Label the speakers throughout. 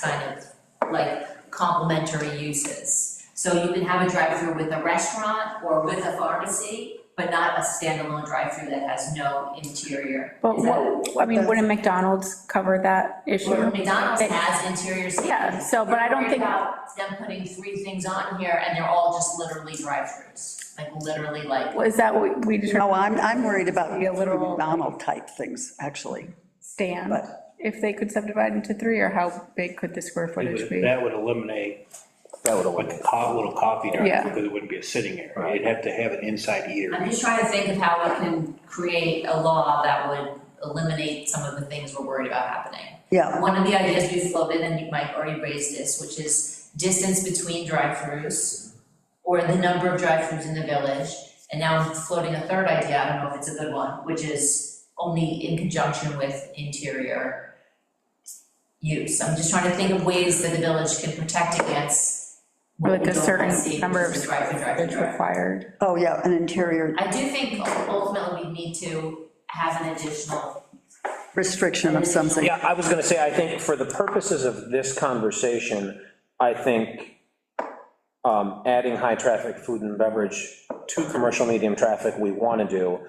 Speaker 1: kind of like complementary uses. So you can have a drive-through with a restaurant or with a pharmacy, but not a standalone drive-through that has no interior.
Speaker 2: But
Speaker 1: Is that-
Speaker 2: what, I mean, wouldn't McDonald's cover that
Speaker 1: Well,
Speaker 2: issue?
Speaker 1: McDonald's
Speaker 2: They-
Speaker 1: has interior seating.
Speaker 2: Yeah, so, but I don't think-
Speaker 1: We're worried about them putting three things on here and they're all just literally drive-throughs, like literally like
Speaker 2: Is that what we determined,
Speaker 3: No, Oh, I'm, I'm worried about
Speaker 2: Be a little-
Speaker 3: McDonald type things, actually.
Speaker 2: stand, if they could subdivide into three, or how big could the square footage be?
Speaker 4: That would eliminate
Speaker 5: That would
Speaker 4: a
Speaker 5: eliminate.
Speaker 4: co- little coffee
Speaker 2: Yeah.
Speaker 4: drive, because it wouldn't be a sitting area. You'd have to have an inside eater.
Speaker 1: I'm just trying to think of how we can create a law that would eliminate some of the things we're worried about happening.
Speaker 3: Yeah,
Speaker 1: One of the ideas we floated, and you might already raised this, which is distance between drive-throughs or the number of drive-throughs in the village. And now I'm floating a third idea, I don't know if it's a good one, which is only in conjunction with interior use. I'm just trying to think of ways that the village can protect against what
Speaker 2: Like
Speaker 1: we
Speaker 2: a
Speaker 1: don't wanna see,
Speaker 2: certain number of
Speaker 1: which is drive-through,
Speaker 2: square
Speaker 1: drive-through,
Speaker 2: footage
Speaker 1: drive-through.
Speaker 2: required,
Speaker 3: oh, yeah, an interior
Speaker 1: I do think ultimately we need to have an additional,
Speaker 3: restriction of something.
Speaker 5: Yeah, I was gonna say, I think for the purposes of this conversation, I think um, adding high-traffic food and beverage to commercial medium traffic, we want to do,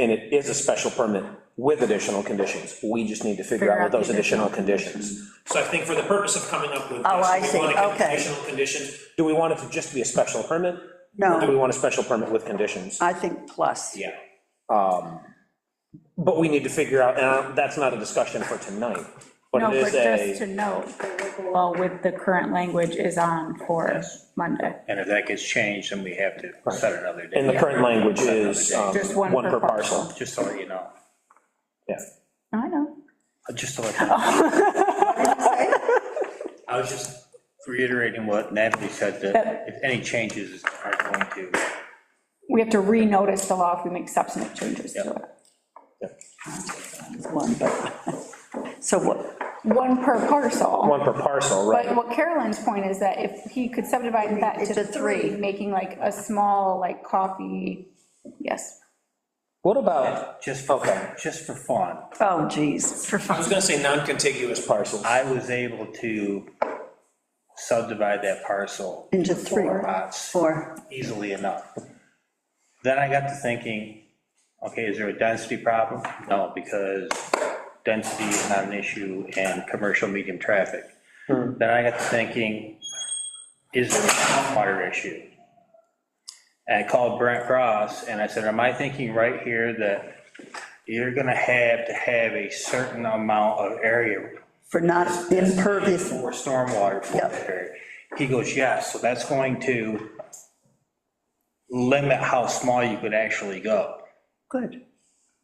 Speaker 5: and it is a special permit with additional conditions. We just need to figure out what those additional conditions.
Speaker 6: So I think for the purpose of coming up with this.
Speaker 3: Oh, I
Speaker 6: we
Speaker 3: see.
Speaker 6: wanna get
Speaker 3: Okay.
Speaker 6: Additional conditions,
Speaker 5: Do we want it to just be a special permit? Or do
Speaker 3: No,
Speaker 5: we want a special permit with conditions?
Speaker 3: I think plus.
Speaker 5: Yeah. But we need to figure out, and I- that's not a discussion for tonight,
Speaker 2: no,
Speaker 5: but it
Speaker 2: but
Speaker 5: is a.
Speaker 2: just to note, the local law with the current language is on for Monday,
Speaker 4: And if that gets changed, then we have to set another day.
Speaker 5: And the current language is um,
Speaker 2: Just one
Speaker 5: one
Speaker 2: per
Speaker 5: per parcel.
Speaker 4: Just to let you know,
Speaker 5: Yeah.
Speaker 2: I know.
Speaker 4: just to let you know. I was just reiterating what Natalie said, that if any changes are going to,
Speaker 2: We have to renotice the law if we make substantive changes to it.
Speaker 3: One, but, so what,
Speaker 2: One per parcel.
Speaker 5: One per parcel,
Speaker 2: But
Speaker 5: right?
Speaker 2: what Carolyn's point is that if he could subdivide that
Speaker 3: Into
Speaker 2: to three,
Speaker 3: three.
Speaker 2: making like a small, like coffee, yes.
Speaker 5: What about
Speaker 7: Just for, just for fun,
Speaker 3: oh geez. For
Speaker 6: I was gonna say non-contiguous
Speaker 5: parcels?
Speaker 7: I was able to subdivide that parcel
Speaker 3: Into three,
Speaker 7: four lots
Speaker 3: four,
Speaker 7: easily enough. Then I got to thinking, okay, is there a density problem? No, because density is not an issue in commercial medium traffic. Then I got to thinking, is there a stormwater issue? And I called Brent Cross, and I said, am I thinking right here that you're gonna have to have a certain amount of area
Speaker 3: for not impervious.
Speaker 7: for stormwater for
Speaker 3: Yep.
Speaker 7: that area? He goes, yes, so that's going to limit how small you could actually go.
Speaker 3: Good.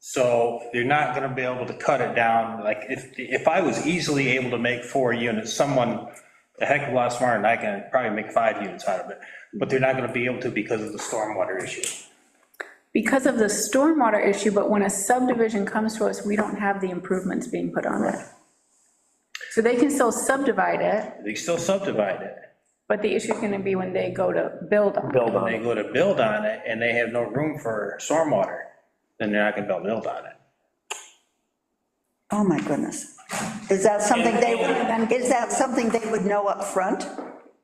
Speaker 7: So you're not gonna be able to cut it down, like, if, if I was easily able to make four units, someone a heck of a lot smarter than I can probably make five units out of it, but they're not gonna be able to because of the stormwater issue.
Speaker 2: Because of the stormwater issue, but when a subdivision comes to us, we don't have the improvements being put on it. So they can still subdivide it,
Speaker 7: They still subdivide it.
Speaker 2: but the issue's gonna be when they go to build on it.
Speaker 5: Build on
Speaker 7: They
Speaker 5: it.
Speaker 7: go to build on it and they have no room for stormwater, then they're not gonna be able to build on it.
Speaker 3: Oh, my goodness. Is that something they, would? is that something they would know up front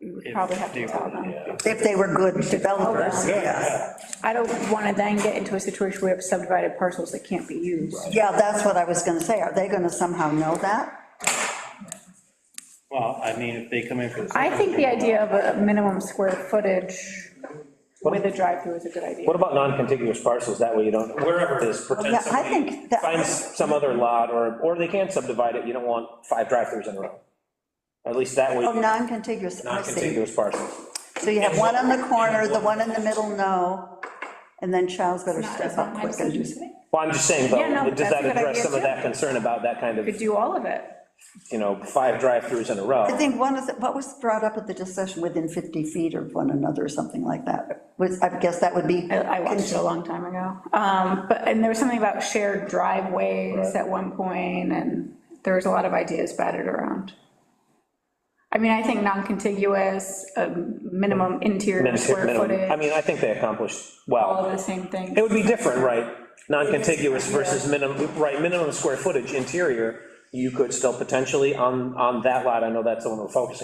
Speaker 2: We Probably have to tell them.
Speaker 3: If they were good developers, yeah.
Speaker 2: I don't wanna then get into a situation where we have subdivided parcels that can't be used.
Speaker 3: Yeah, that's what I was gonna say. Are they gonna somehow know that?
Speaker 7: Well, I mean, if they come in for the.
Speaker 2: I think the idea of a minimum square footage with a drive-through is a good idea.
Speaker 5: What about non-contiguous parcels? That way you don't,
Speaker 6: wherever it is.
Speaker 5: this pretend
Speaker 3: Yeah, I think that.
Speaker 5: find some other lot, or, or they can subdivide it, you don't want five drive-throughs in a row. At least that way,
Speaker 3: Oh, non-contiguous, I see.
Speaker 5: non-contiguous parcels.
Speaker 3: So you have one on the corner, the one in the middle, no, and then Charles better step
Speaker 2: That's not
Speaker 3: up
Speaker 2: my
Speaker 3: quick and
Speaker 2: decision today.
Speaker 5: Well, I'm just saying,
Speaker 2: Yeah, no,
Speaker 5: though, does
Speaker 2: that's a
Speaker 5: that
Speaker 2: good
Speaker 5: address
Speaker 2: idea,
Speaker 5: some of
Speaker 2: too.
Speaker 5: that concern about that kind of,
Speaker 2: Could do all of it.
Speaker 5: you know, five drive-throughs in a row?
Speaker 3: I think one of, the- what was brought up at the discussion, within 50 feet of one another or something like that? Was, I guess that would be.
Speaker 2: I I watched it a long time ago. Um, But, and there was something about shared driveways at one point, and there was a lot of ideas batted around. I mean, I think non-contiguous, um, minimum interior
Speaker 5: Minimum-
Speaker 2: square
Speaker 5: minimum- I
Speaker 2: footage,
Speaker 5: mean, I think they accomplished
Speaker 2: all
Speaker 5: well.
Speaker 2: the same things.
Speaker 5: It would be different, right? Non-contiguous versus minimum, right, minimum square footage interior you could still potentially, on, on that lot, I know that's the one we're focusing